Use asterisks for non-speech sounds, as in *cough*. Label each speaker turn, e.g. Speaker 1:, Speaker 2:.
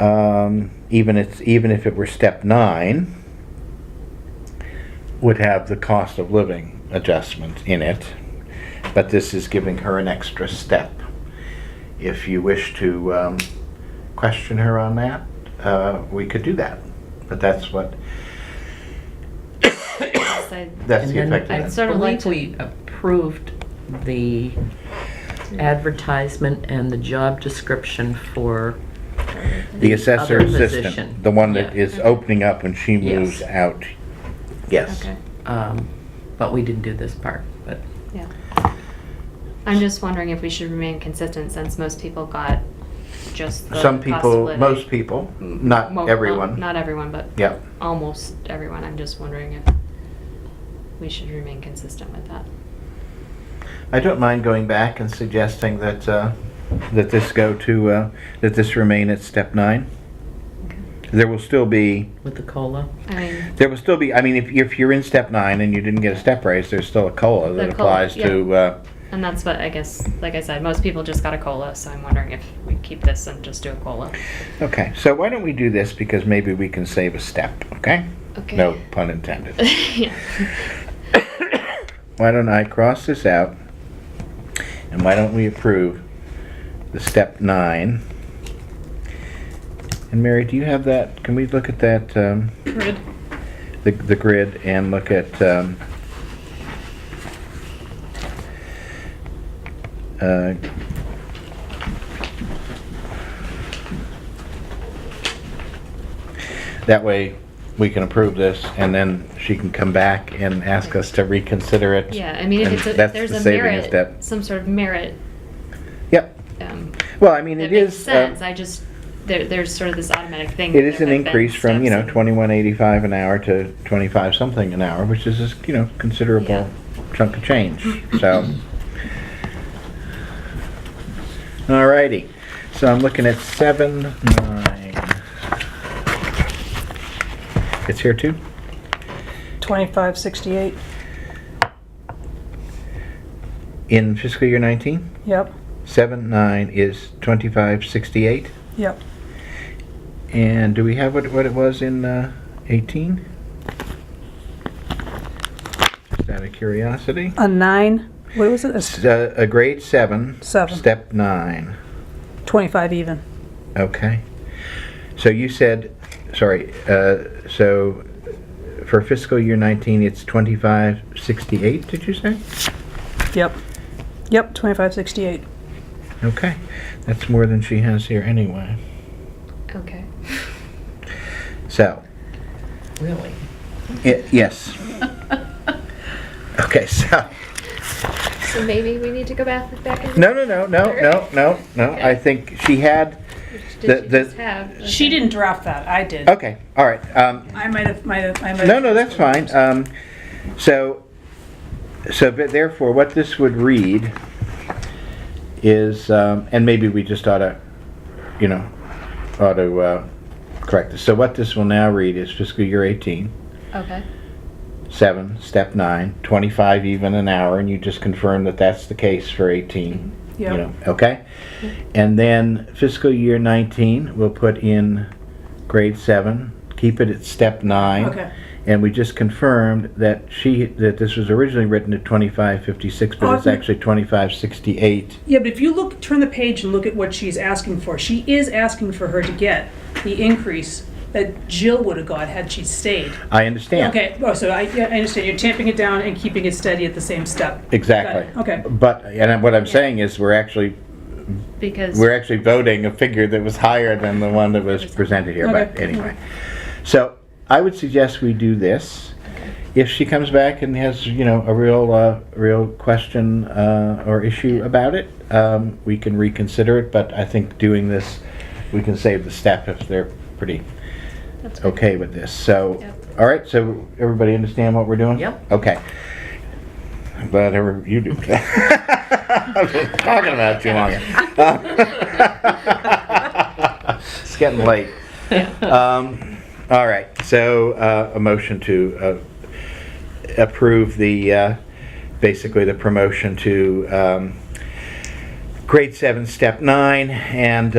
Speaker 1: um, even if, even if it were step nine, would have the cost of living adjustment in it, but this is giving her an extra step. If you wish to um, question her on that, uh, we could do that, but that's what, that's the
Speaker 2: And
Speaker 1: effect
Speaker 2: then
Speaker 1: of
Speaker 2: I
Speaker 1: that.
Speaker 2: sort of like
Speaker 3: believe
Speaker 2: we approved the advertisement and the job description for,
Speaker 1: The assessor
Speaker 2: other position.
Speaker 1: assistant, the one that
Speaker 2: Yeah.
Speaker 1: is opening up when she
Speaker 2: Yes.
Speaker 1: moves out. Yes.
Speaker 3: Okay,
Speaker 2: um, but we didn't do this part, but.
Speaker 3: yeah. I'm just wondering if we should remain consistent since most people got just the
Speaker 1: Some
Speaker 3: cost of
Speaker 1: people,
Speaker 3: living.
Speaker 1: most people,
Speaker 3: Well,
Speaker 1: not everyone.
Speaker 3: Not everyone, but
Speaker 1: Yeah.
Speaker 3: almost everyone. I'm just wondering if we should remain consistent with that.
Speaker 1: I don't mind going back and suggesting that, uh, that this go to, uh, that this remain at step nine.
Speaker 3: Okay.
Speaker 1: There will still be,
Speaker 2: With the COLA?
Speaker 3: I mean,
Speaker 1: there will still be, I mean, if, if you're in step nine and you didn't get a step raise, there's still a COLA that
Speaker 3: The COLA,
Speaker 1: applies to, uh,
Speaker 3: and that's what I guess, like I said, most people just got a cola, so I'm wondering if we keep this and just do a cola.
Speaker 1: okay, so why don't we do this because maybe we can save a step, okay?
Speaker 3: Okay.
Speaker 1: No pun intended.
Speaker 3: *laughs* yeah.
Speaker 1: Why don't I cross this out? And why don't we approve the step nine? And Mary, do you have that? Can we look at that, um,
Speaker 3: Grid.
Speaker 1: the, the grid and look at, um, uh, that way we can approve this and then she can come back and ask us to reconsider it.
Speaker 3: Yeah, I mean, if
Speaker 1: And
Speaker 3: it's a, if
Speaker 1: that's
Speaker 3: there's
Speaker 1: the
Speaker 3: a
Speaker 1: saving
Speaker 3: merit,
Speaker 1: step.
Speaker 3: some sort of merit,
Speaker 1: Yep.
Speaker 3: um,
Speaker 1: Well, I mean, it
Speaker 3: that makes
Speaker 1: is, uh,
Speaker 3: sense. I just there, there's sort of this automatic thing.
Speaker 1: it
Speaker 3: that
Speaker 1: is
Speaker 3: there
Speaker 1: an
Speaker 3: have been
Speaker 1: increase from, you know,
Speaker 3: steps and-
Speaker 1: twenty-one eighty-five an hour to twenty-five something an hour, which is, a you know,
Speaker 3: Yeah.
Speaker 1: considerable chunk of
Speaker 3: *laughs*
Speaker 1: change, so. Alrighty, so I'm looking at seven, nine. It's here too?
Speaker 4: 2568,
Speaker 1: In fiscal year nineteen,
Speaker 4: yep,
Speaker 1: seven, nine is twenty-five sixty-eight.
Speaker 4: yep.
Speaker 1: And do we have what, what it was in uh, 18? Just out of curiosity.
Speaker 4: A nine, what was it?
Speaker 1: S-
Speaker 4: It's
Speaker 1: uh, A grade seven.
Speaker 4: Seven.
Speaker 1: Step nine.
Speaker 4: 25 even.
Speaker 1: Okay. So you said, sorry, uh, so for fiscal year 19, it's 2568, did you say?
Speaker 4: Yep. Yep, 2568.
Speaker 1: Okay. That's more than she has here anyway.
Speaker 3: Okay.
Speaker 1: So,
Speaker 2: Really?
Speaker 1: i- yes. Okay, so.
Speaker 3: So maybe we need to go back back and
Speaker 1: No, no, no, no, no, no, no. I think she had,
Speaker 3: Did
Speaker 1: The-
Speaker 3: you
Speaker 1: the-
Speaker 3: just have?
Speaker 4: She didn't draft that, I did.
Speaker 1: okay, all right. Um,
Speaker 4: I might have, might have, I might have.
Speaker 1: no, no, that's fine. Um, so, so but therefore, what this would read is, um, and maybe we just ought to, you know, ought to, uh, correct this. So what this will now read is fiscal year eighteen,
Speaker 3: Okay.
Speaker 1: seven, step nine, twenty-five even an hour, and you just confirm that that's the case for eighteen. you
Speaker 4: Yep.
Speaker 1: know, okay? And then fiscal year 19, we'll put in grade seven, keep it at step nine.
Speaker 4: Okay.
Speaker 1: And we just confirmed that she, that this was originally written at 2556, but it's
Speaker 4: Awesome.
Speaker 1: actually 2568.
Speaker 4: Yeah, but if you look, turn the page and look at what she's asking for, she is asking for her to get the increase that Jill would have got had she stayed.
Speaker 1: I understand.
Speaker 4: Okay, oh, so I, yeah, I understand, you're tamping it down and keeping it steady at the same step.
Speaker 1: Exactly.
Speaker 4: Got it, okay.
Speaker 1: But, and what I'm saying is, we're actually,
Speaker 3: Because
Speaker 1: we're actually voting a figure that was higher than the one that was presented here, but
Speaker 4: Okay.
Speaker 1: anyway. So I would suggest we do this. If she comes back and has, you know, a real, uh, real question, uh, or issue about it, um, we can reconsider it, but I think doing this, we can save the step if they're pretty
Speaker 3: That's fine.
Speaker 1: okay with this. So,
Speaker 3: Yep.
Speaker 1: all right, so everybody understand what we're doing?
Speaker 2: Yep.
Speaker 1: Okay. I'm glad ever you do. I've been talking about you long. It's getting late.
Speaker 2: *laughs* Uh,
Speaker 1: Um, all right, so, uh, a motion to, uh, approve the, uh, basically the promotion to, um, grade seven, step nine, and